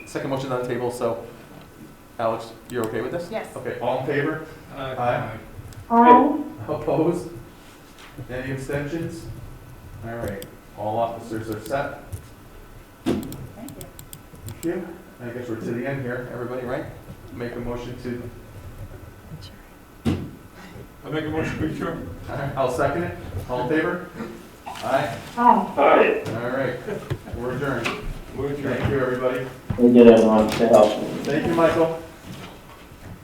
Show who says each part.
Speaker 1: second motion on the table, so Alex, you're okay with this?
Speaker 2: Yes.
Speaker 1: Okay, all in favor? Aye.
Speaker 3: Aye.
Speaker 1: Opposed? Any abstentions? All right, all officers are set.
Speaker 2: Thank you.
Speaker 1: Thank you. I guess we're to the end here, everybody, right? Make a motion to,
Speaker 4: I make a motion to adjourn.
Speaker 1: all right, I'll second it. All in favor? Aye,
Speaker 3: Aye.
Speaker 4: Aye.
Speaker 1: all right, we're adjourned.
Speaker 4: We're adjourned.
Speaker 1: Thank you, everybody.
Speaker 3: We did it on the house.
Speaker 1: Thank you, Michael.